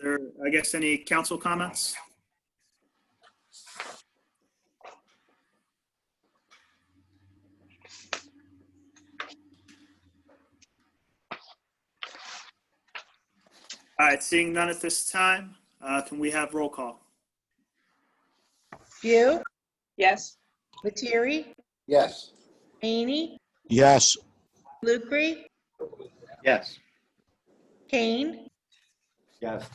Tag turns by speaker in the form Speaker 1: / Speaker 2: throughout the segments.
Speaker 1: there, I guess, any council comments? All right, seeing none at this time, uh, can we have roll call?
Speaker 2: View,
Speaker 3: Yes.
Speaker 2: Lettieri,
Speaker 4: Yes.
Speaker 2: Amy,
Speaker 5: Yes.
Speaker 2: Lucre,
Speaker 4: Yes.
Speaker 2: Kane,
Speaker 4: Yes.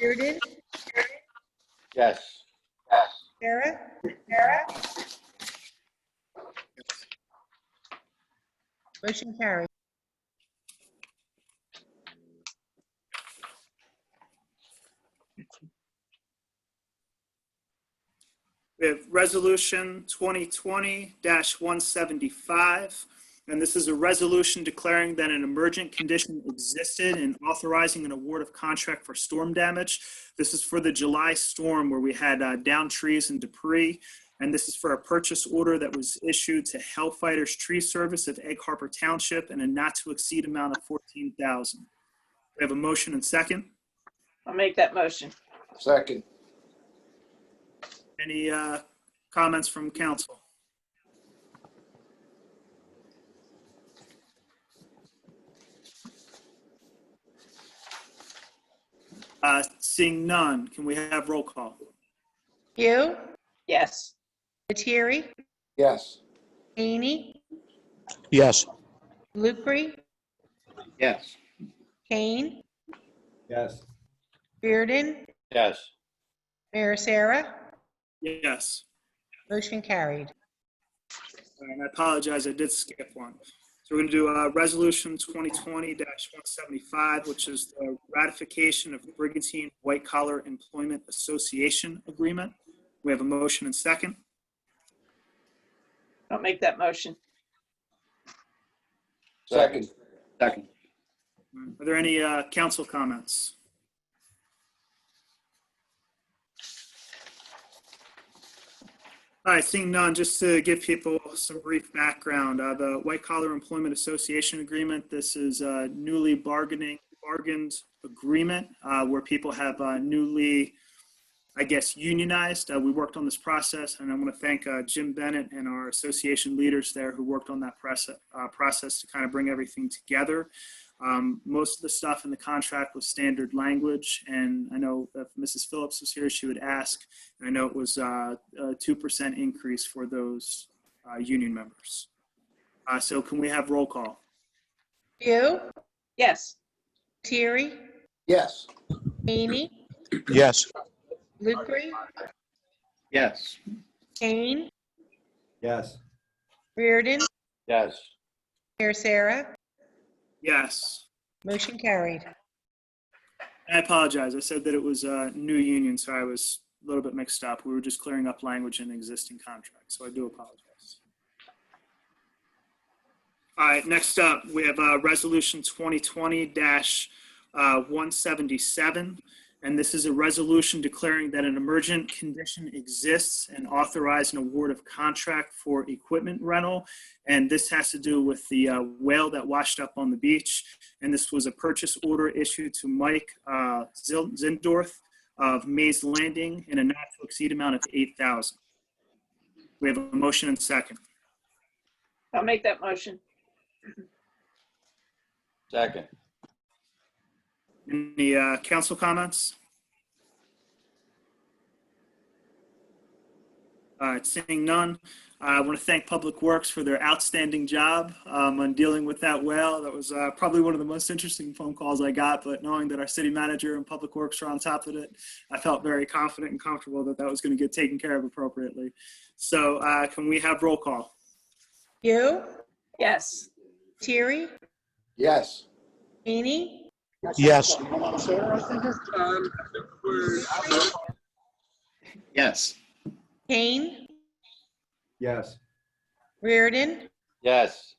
Speaker 2: Reardon,
Speaker 4: Yes.
Speaker 2: Sarah, Sarah. Motion carried.
Speaker 1: We have Resolution 2020-175, and this is a resolution declaring that an emergent condition existed and authorizing an award of contract for storm damage. This is for the July storm where we had uh, downed trees and debris, and this is for a purchase order that was issued to Hellfighters Tree Service of Egg Harbor Township and a not-to-exceed amount of 14000 We have a motion and second.
Speaker 3: I'll make that motion.
Speaker 4: Second.
Speaker 1: Any uh, comments from council? Uh, Seeing none, can we have roll call?
Speaker 2: View,
Speaker 3: Yes.
Speaker 2: Lettieri,
Speaker 4: Yes.
Speaker 2: Amy,
Speaker 5: Yes.
Speaker 2: Lucre,
Speaker 4: Yes.
Speaker 2: Kane,
Speaker 4: Yes.
Speaker 2: Reardon,
Speaker 4: Yes.
Speaker 2: Mayor Sarah.
Speaker 1: Yes.
Speaker 2: Motion carried.
Speaker 1: And I apologize, I did skip one. So we're going to do uh, Resolution 2020-175, which is the ratification of Brigantine White Collar Employment Association Agreement. We have a motion and second.
Speaker 3: I'll make that motion.
Speaker 4: Second. Second.
Speaker 1: Are there any uh, council comments? All right, seeing none, just to give people some brief background, uh, the White Collar Employment Association Agreement, this is a newly bargaining, bargained agreement uh, where people have uh, newly, I guess, unionized. Uh, We worked on this process, and I want to thank uh, Jim Bennett and our association leaders there who worked on that press- uh, process to kind of bring everything together. Um, most of the stuff in the contract was standard language, and I know if Mrs. Phillips was here, she would ask. And I know it was uh, a two percent increase for those uh, union members. Uh, so can we have roll call?
Speaker 2: View,
Speaker 3: Yes.
Speaker 2: Lettieri,
Speaker 4: Yes.
Speaker 2: Amy,
Speaker 5: Yes.
Speaker 2: Lucre,
Speaker 4: Yes.
Speaker 2: Kane,
Speaker 4: Yes.
Speaker 2: Reardon,
Speaker 4: Yes.
Speaker 2: Mayor Sarah.
Speaker 1: Yes.
Speaker 2: Motion carried.
Speaker 1: I apologize. I said that it was a new union, so I was a little bit mixed up. We were just clearing up language in the existing contract, so I do apologize. All right, next up, we have uh, Resolution 2020-177, uh, and this is a resolution declaring that an emergent condition exists and authorize an award of contract for equipment rental. And this has to do with the uh, whale that washed up on the beach and this was a purchase order issued to Mike uh, Zil- Zindorf of Mays Landing in a not to exceed amount of 8,000. We have a motion and second.
Speaker 3: I'll make that motion.
Speaker 4: Second.
Speaker 1: Any uh, council comments? All right, seeing none, I want to thank Public Works for their outstanding job um, on dealing with that well. That was uh, probably one of the most interesting phone calls I got, but knowing that our city manager and Public Works are on top of it, I felt very confident and comfortable that that was going to get taken care of appropriately. So uh, can we have roll call?
Speaker 2: View,
Speaker 3: Yes.
Speaker 2: Lettieri,
Speaker 4: Yes.
Speaker 2: Amy,
Speaker 5: Yes.
Speaker 4: Yes.
Speaker 2: Kane,
Speaker 4: Yes.
Speaker 2: Reardon,
Speaker 4: Yes.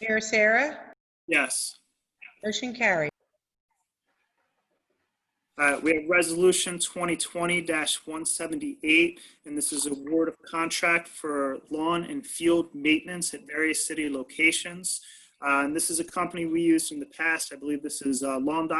Speaker 2: Mayor Sarah,
Speaker 1: Yes.
Speaker 2: motion carried.
Speaker 1: Uh, We have Resolution 2020-178, and this is award of contract for lawn and field maintenance at various city locations. Uh, And this is a company we used in the past. I believe this is uh, Lawn Doc